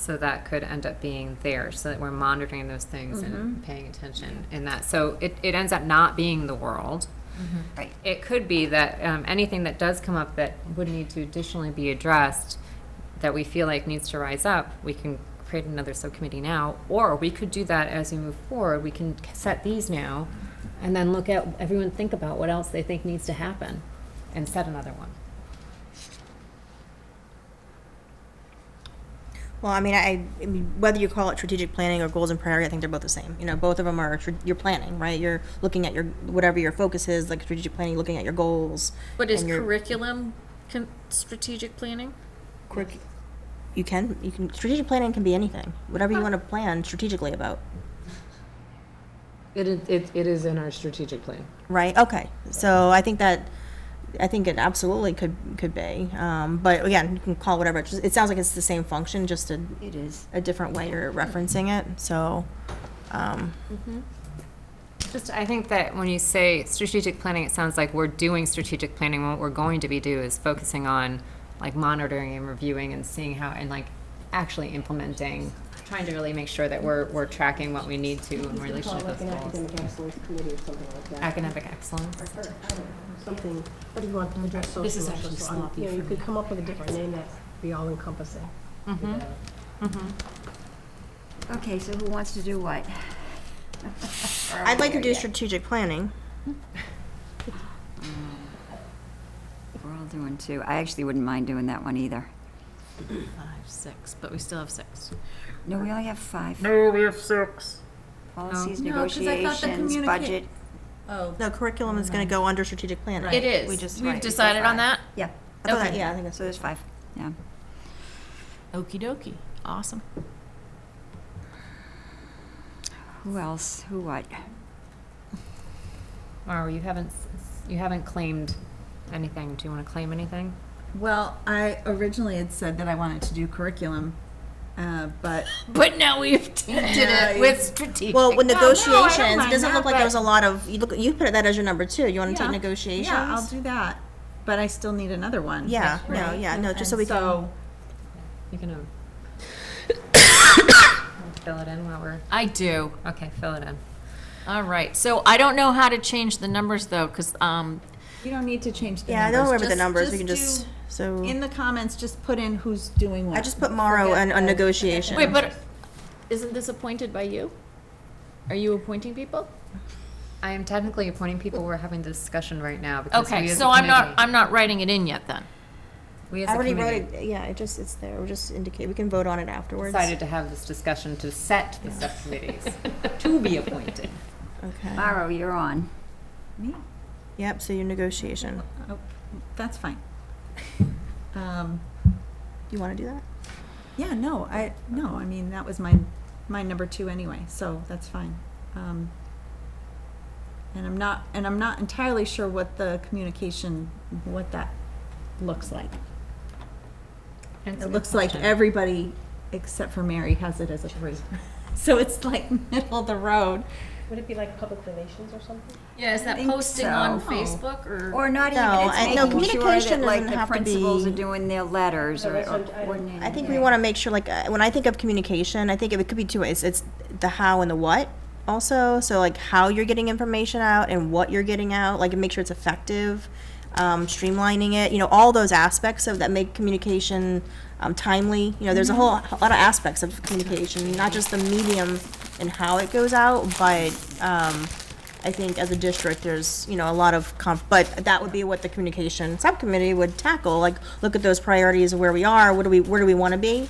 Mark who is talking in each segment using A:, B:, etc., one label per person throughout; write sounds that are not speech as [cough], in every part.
A: So that could end up being there, so that we're monitoring those things
B: Mm-hmm.
A: and paying attention in that. So it, it ends up not being the world.
B: Mm-hmm.
C: Right.
A: It could be that um, anything that does come up that would need to additionally be addressed, that we feel like needs to rise up, we can create another subcommittee now, or we could do that as we move forward. We can set these now, and then look at, everyone think about what else they think needs to happen, and set another one.
C: Well, I mean, I, I mean, whether you call it strategic planning or goals and priority, I think they're both the same. You know, both of them are tr- you're planning, right? You're looking at your whatever your focus is, like strategic planning, looking at your goals.
B: But is
C: and your-
B: curriculum con- strategic planning?
C: curric- You can you can strategic planning can be anything, whatever you want to plan strategically about,
D: It, is- it, it is in our strategic plan.
C: right? Okay, so I think that I think it absolutely could could be, um, but again, you can call it whatever. It, just, it sounds like it's the same function, just a
E: It is.
C: a different way you're referencing it. So, um,
A: Just, I think that when you say strategic planning, it sounds like we're doing strategic planning. What we're going to be do is focusing on like monitoring and reviewing and seeing how, and like actually implementing, trying to really make sure that we're, we're tracking what we need to in relation to those
F: Like an
A: goals.
F: academic excellence committee or something like that.
A: Academic excellence.
F: Or, I don't know, Something, what do you want to address social
E: This is
F: issues
E: actually
F: on?
E: sloppy
F: You know, you
E: for
F: could
E: me.
F: come up with a different name that'd be all encompassing.
E: Okay, so who wants to do what?
C: I'd like to do strategic planning.
E: We're all doing two. I actually wouldn't mind doing that one either.
B: Five, six, but we still have six.
E: No, we only have five.
G: No, we have six.
E: Policies,
B: No, 'cause I thought the
E: negotiations,
B: communica-
E: budget.
B: Oh,
C: No, curriculum is going to go under strategic planning.
B: it
C: We
B: is.
C: just,
B: We've
C: right.
B: decided on that?
E: Yeah,
C: I thought that-
B: okay.
C: Yeah, I think
E: so there's
C: that's,
E: five, yeah.
B: Okey dokey. Awesome.
E: Who else, who what?
A: Or you haven't, s- s- you haven't claimed anything. Do you want to claim anything?
H: Well, I originally had said that I wanted to do curriculum, uh, but
B: But now [laughs] we've did it with strategic.
C: well, with negotiations,
B: mind
C: it doesn't
B: that,
C: look like
B: but-
C: there was a lot of, you look, you put that as your number two. You want to
H: Yeah.
C: take negotiations?
H: yeah, I'll do that. But I still need another one.
C: Yeah, no, yeah, no, just so we
H: And
C: can,
H: so
A: You can, um, [coughs] fill it in while we're,
B: I do.
A: okay, fill it in.
B: All right. So I don't know how to change the numbers though, because um,
H: you don't need to change the
C: yeah, I
H: numbers.
C: don't remember the numbers.
H: Just-
C: We can
H: do-
C: just, so,
H: in the comments. Just put in who's doing what.
C: I just put Morrow on, on negotiation.
B: wait, but isn't this appointed by you? Are you appointing people?
A: I am technically appointing people. We're having the discussion right now because we
B: Okay,
A: as a
B: so I'm not
A: committee-
B: I'm not writing it in yet then.
A: We as
C: I
A: a
C: already
A: committee.
C: wrote it, yeah, it just, it's there. We'll just indicate, we can vote on it afterwards.
A: decided to have this discussion to set the
C: [laughs]
A: subcommittees to be appointed.
C: Okay.
E: Maro, you're on. Me?
C: Yep, so your negotiation.
H: Oh, that's [laughs] fine. Um,
C: You want to do that?
H: yeah, no, I no. I mean, that was my my number two anyway, so that's fine. Um, and I'm not and I'm not entirely sure what the communication what that looks like. It looks like everybody except for Mary has it as a three. [laughs] So it's like middle of the road.
F: Would it be like public relations or something?
B: Yeah, is that
E: think
B: posting
E: so.
B: on
E: No.
H: Oh,
B: Facebook or?
E: Or not
C: No, I- no,
E: even, it's making sure
C: communication
E: that like
C: doesn't
E: the
C: have to
E: principals are
C: be-
E: doing their letters or
F: that's
E: or
F: what I'm- I don't-
E: coordinating.
C: I think we
E: their-
C: want to make sure, like, uh, when I think of communication, I think it could be two ways. It's the how and the what also. So, like, how you're getting information out and what you're getting out, like, and make sure it's effective, um, streamlining it, you know, all those aspects of that make communication um, timely. You know, there's a whole a lot of aspects of communication, not just the medium and how it goes out, but um, I think as a district, there's, you know, a lot of conf, but that would be what the communication subcommittee would tackle, like, look at those priorities of where we are, what do we, where do we wanna be?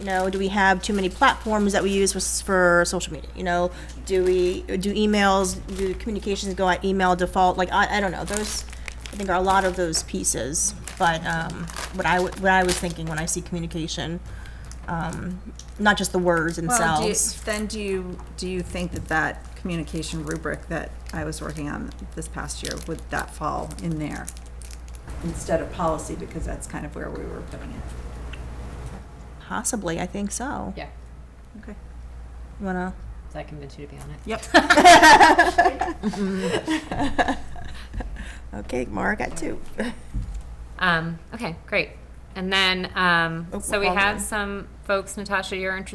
C: You know, do we have too many platforms that we use for, s- for social media, you know? Do we, do emails, do communications go at email default, like, I, I don't know, those, I think are a lot of those pieces. But, um, what I, w- what I was thinking when I see communication, um, not just the words
H: Well, do you,
C: themselves.
H: then do you, do you think that that communication rubric that I was working on this past year, would that fall in there? Instead of policy, because that's kind of where we were putting it.
C: Possibly, I think so.
A: Yeah,
H: Okay.
C: You Wanna?
A: does that convince you to be on it?
C: Okay, Mara got two.
A: Um, okay, great. And then, um,
C: Oh,
A: so we
C: wrong
A: have
C: one.
A: some folks, Natasha, you're interested